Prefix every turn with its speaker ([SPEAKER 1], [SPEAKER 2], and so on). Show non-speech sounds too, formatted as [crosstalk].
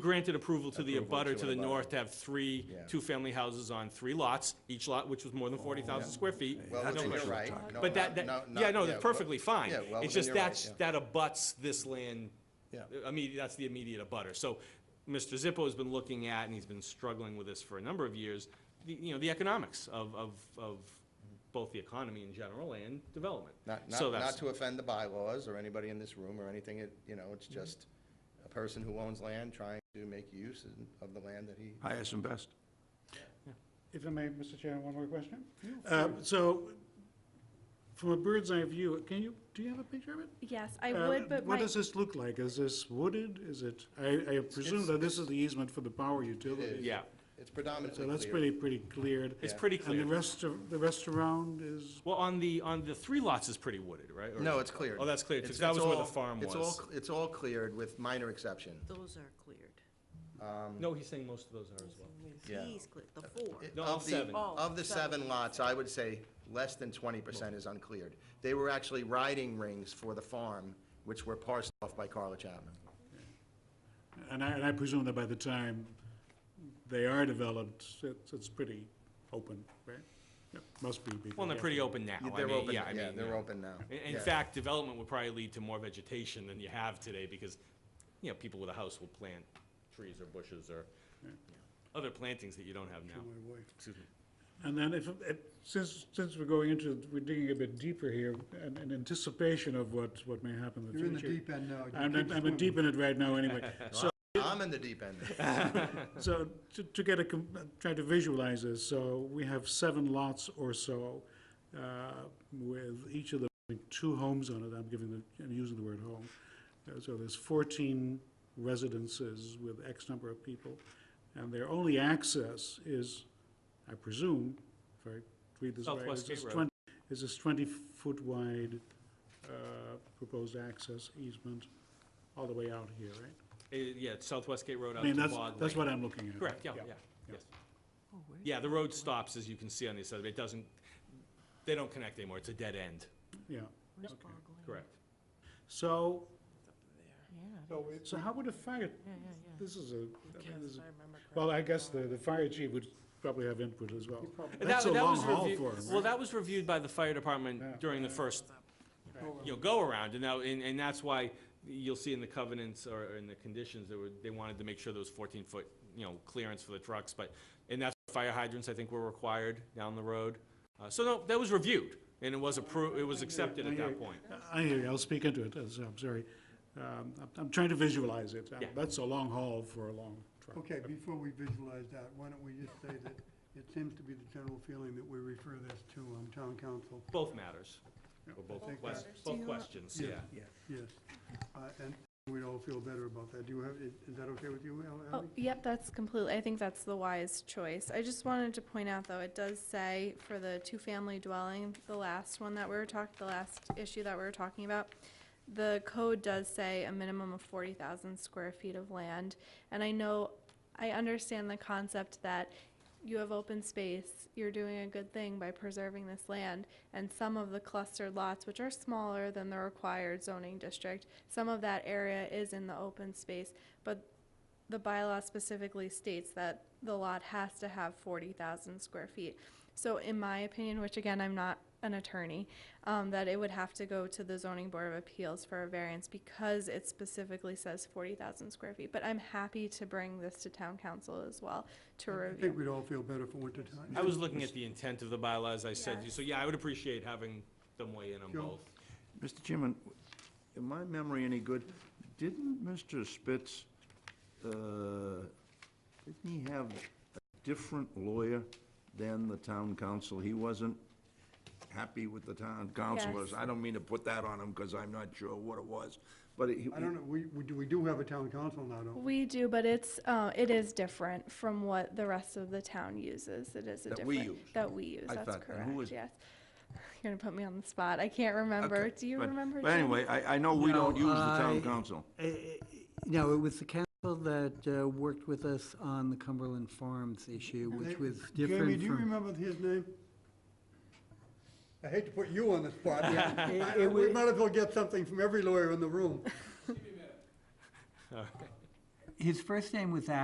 [SPEAKER 1] granted approval to the
[SPEAKER 2] Approval
[SPEAKER 1] abutter
[SPEAKER 2] to
[SPEAKER 1] to the
[SPEAKER 2] abutter.
[SPEAKER 1] north to have three,
[SPEAKER 2] Yeah.
[SPEAKER 1] two-family houses on three lots, each lot which was more than forty thousand square feet.
[SPEAKER 2] Oh, Well,
[SPEAKER 1] No
[SPEAKER 2] within your
[SPEAKER 1] question.
[SPEAKER 2] right. No,
[SPEAKER 1] But that,
[SPEAKER 2] not-
[SPEAKER 1] that,
[SPEAKER 2] not-
[SPEAKER 1] yeah, no,
[SPEAKER 2] not-
[SPEAKER 1] that's
[SPEAKER 2] well-
[SPEAKER 1] perfectly fine.
[SPEAKER 2] yeah, well
[SPEAKER 1] It's
[SPEAKER 2] within
[SPEAKER 1] just
[SPEAKER 2] your right,
[SPEAKER 1] that's,
[SPEAKER 2] yeah.
[SPEAKER 1] that abuts this land,
[SPEAKER 2] Yeah.
[SPEAKER 1] I mean, that's the immediate abutter. So Mr. Zippo's been looking at, and he's been struggling with this for a number of years, the, you know, the economics of, of, of both the economy in general and development.
[SPEAKER 2] Not,
[SPEAKER 1] So
[SPEAKER 2] not,
[SPEAKER 1] that's-
[SPEAKER 2] not to offend the bylaws or anybody in this room or anything, it, you know, it's
[SPEAKER 1] Mm-hmm.
[SPEAKER 2] just a person who owns land trying to make use of the land that he.
[SPEAKER 3] highest and best.
[SPEAKER 4] If I may, Mr. Chairman, one more question? Uh, So, from a bird's eye view, can you, do you have a picture of it?
[SPEAKER 5] Yes, I
[SPEAKER 4] Uh,
[SPEAKER 5] would, but
[SPEAKER 4] What
[SPEAKER 5] my,
[SPEAKER 4] does this look like? Is this wooded? Is it, I, I presume that this is the easement for the power utility.
[SPEAKER 1] Yeah,
[SPEAKER 2] It's predominantly
[SPEAKER 4] So
[SPEAKER 2] clear.
[SPEAKER 4] that's pretty, pretty cleared.
[SPEAKER 1] it's pretty
[SPEAKER 4] And the
[SPEAKER 1] clear.
[SPEAKER 4] rest of, the rest around is,
[SPEAKER 1] Well, on the, on the three lots is pretty wooded, right? Or-
[SPEAKER 2] No, it's cleared.
[SPEAKER 1] Oh, that's cleared, because
[SPEAKER 2] It's-
[SPEAKER 1] that
[SPEAKER 2] it's
[SPEAKER 1] was where the
[SPEAKER 2] all-
[SPEAKER 1] farm
[SPEAKER 2] It's all,
[SPEAKER 1] was.
[SPEAKER 2] cl- it's all cleared with minor exception.
[SPEAKER 6] Those are cleared.
[SPEAKER 1] No, he's saying most of those are as well.
[SPEAKER 2] Yeah.
[SPEAKER 6] He's cleared, the four.
[SPEAKER 2] It-
[SPEAKER 1] No, all
[SPEAKER 2] of the-
[SPEAKER 1] seven.
[SPEAKER 6] Oh,
[SPEAKER 2] Of the seven lots, I would say less than twenty percent is uncleared. They were actually riding rings for the farm, which were parsed off by Carla Chapman.
[SPEAKER 1] Oh,
[SPEAKER 4] and I, and I presume that by the time they are developed, it's, it's pretty open, right? Yeah, Must be. because-
[SPEAKER 1] Well, they're pretty open now. I
[SPEAKER 2] They're
[SPEAKER 1] mean,
[SPEAKER 2] open,
[SPEAKER 1] yeah, I
[SPEAKER 2] yeah,
[SPEAKER 1] mean,
[SPEAKER 2] they're open now.
[SPEAKER 1] In- In
[SPEAKER 2] Yeah.
[SPEAKER 1] fact, development would probably lead to more vegetation than you have today, because, you know, people with a house will plant trees or bushes or other plantings that you don't have now.
[SPEAKER 4] My wife.
[SPEAKER 1] Excuse me.
[SPEAKER 4] And then if, if- since, since we're going into, we're digging a bit deeper here, and in anticipation of what, what may happen in the
[SPEAKER 7] You're in the
[SPEAKER 4] future.
[SPEAKER 7] deep end now. You
[SPEAKER 4] I'm, in-
[SPEAKER 7] keep
[SPEAKER 4] I'm in
[SPEAKER 7] swimming.
[SPEAKER 4] deep in it right now anyway.
[SPEAKER 1] [laughs]
[SPEAKER 4] So,
[SPEAKER 2] I'm in the deep end.
[SPEAKER 4] so to, to get a, com- uh, try to visualize this, so we have seven lots or so, uh, with each of them having two homes on it, I'm giving the, I'm using the word home. Uh, So there's fourteen residences with X number of people, and their only access is, I presume, if I read this right. is
[SPEAKER 1] Southwest Gate
[SPEAKER 4] this
[SPEAKER 1] Road.
[SPEAKER 4] 20 Is this twenty-foot wide, uh, proposed access easement all the way out here, right?
[SPEAKER 1] Uh, Yeah, it's Southwest Gate Road
[SPEAKER 4] I
[SPEAKER 1] out
[SPEAKER 4] mean,
[SPEAKER 1] to
[SPEAKER 4] that's,
[SPEAKER 1] Bog
[SPEAKER 4] that's
[SPEAKER 1] Lake.
[SPEAKER 4] what I'm looking at.
[SPEAKER 1] Correct, yeah, yeah, yes. Yeah, the road stops, as you can see on the side, it doesn't, they don't connect anymore, it's a dead end,
[SPEAKER 4] Yeah.
[SPEAKER 6] Where's Bogland?
[SPEAKER 1] correct?
[SPEAKER 4] So,
[SPEAKER 6] Yeah,
[SPEAKER 7] So it's
[SPEAKER 4] so how would a fire,
[SPEAKER 6] yeah, yeah, yeah.
[SPEAKER 4] this is a, I mean, this
[SPEAKER 6] Yes,
[SPEAKER 4] is-
[SPEAKER 6] I remember
[SPEAKER 4] well, I
[SPEAKER 6] correctly.
[SPEAKER 4] guess the, the fire chief would probably have input as well.
[SPEAKER 1] That-
[SPEAKER 4] That's a
[SPEAKER 1] that
[SPEAKER 4] long
[SPEAKER 1] was
[SPEAKER 4] haul
[SPEAKER 1] reviewed-
[SPEAKER 4] for him,
[SPEAKER 1] Well,
[SPEAKER 4] right?
[SPEAKER 1] that was reviewed by the fire
[SPEAKER 4] Yeah.
[SPEAKER 1] department during the first, you know, go-around, and now, and, and that's why you'll see in the covenants or in the conditions, that were, they wanted to make sure there was fourteen-foot, you know, clearance for the trucks, but, and that's, fire hydrants, I think, were required down the road. Uh, so no, that was reviewed, and it was approved, it was accepted at that point.
[SPEAKER 4] I hear you, I'll speak into it, as- I'm sorry. Um, I'm- I'm trying to visualize it. Um,
[SPEAKER 1] Yeah.
[SPEAKER 4] That's a long haul for a long truck.
[SPEAKER 7] Okay, before we visualize that, why don't we just say that it seems to be the general feeling that we refer this to um, town council,
[SPEAKER 1] Both matters, or both,
[SPEAKER 7] Both
[SPEAKER 1] quest-
[SPEAKER 7] matters.
[SPEAKER 1] both questions, yeah.
[SPEAKER 7] yes. Uh, And we'd all feel better about that. Do you have, is is that okay with you, Al-
[SPEAKER 5] oh,
[SPEAKER 7] Ally?
[SPEAKER 5] yep, that's completely, I think that's the wise choice. I just wanted to point out, though, it does say for the two-family dwelling, the last one that we were talking, the last issue that we were talking about, the code does say a minimum of forty thousand square feet of land. And I know, I understand the concept that you have open space, you're doing a good thing by preserving this land, and some of the clustered lots, which are smaller than the required zoning district, some of that area is in the open space, but the bylaw specifically states that the lot has to have forty thousand square feet. So in my opinion, which again, I'm not an attorney, um, that it would have to go to the zoning board of appeals for a variance because it specifically says forty thousand square feet. But I'm happy to bring this to town council as well to
[SPEAKER 7] I think
[SPEAKER 5] review.
[SPEAKER 7] we'd all feel better for winter time.
[SPEAKER 1] I was looking at the intent of the bylaws, I said,
[SPEAKER 5] Yes.
[SPEAKER 1] so yeah, I would appreciate having them weigh in on
[SPEAKER 7] Sure.
[SPEAKER 1] both.
[SPEAKER 3] Mr. Chairman, in my memory any good, didn't Mr. Spitz, uh, didn't he have a different lawyer than the town council? He wasn't happy with the town councilors.
[SPEAKER 5] Yes.
[SPEAKER 3] I don't mean to put that on him, because I'm not sure what it was, but he...
[SPEAKER 7] I don't know, we, we do- we do have a town council now, don't we?
[SPEAKER 5] We do, but it's, uh, it is different from what the rest of the town uses. It is a
[SPEAKER 3] That we
[SPEAKER 5] different.
[SPEAKER 3] use.
[SPEAKER 5] That we use,
[SPEAKER 3] I
[SPEAKER 5] that's
[SPEAKER 3] thought, and who
[SPEAKER 5] correct,
[SPEAKER 3] was-
[SPEAKER 5] yes. [laughs] You're gonna put me on the spot. I can't remember.
[SPEAKER 3] Okay,
[SPEAKER 5] Do you
[SPEAKER 3] but-
[SPEAKER 5] remember?
[SPEAKER 3] But
[SPEAKER 5] Jim?
[SPEAKER 3] anyway, I, I know we don't
[SPEAKER 8] No,
[SPEAKER 3] use the town
[SPEAKER 8] I-
[SPEAKER 3] council.
[SPEAKER 8] No, it was the council that uh, worked with us on the Cumberland Farms issue, which was
[SPEAKER 7] Jamie,
[SPEAKER 8] different
[SPEAKER 7] do you
[SPEAKER 8] from.
[SPEAKER 7] remember his name? I hate to put you on the spot.
[SPEAKER 8] [laughs] it-
[SPEAKER 7] I- I-
[SPEAKER 8] it
[SPEAKER 7] We
[SPEAKER 8] wa-
[SPEAKER 7] might as well get something from every lawyer in the room.
[SPEAKER 8] his first name was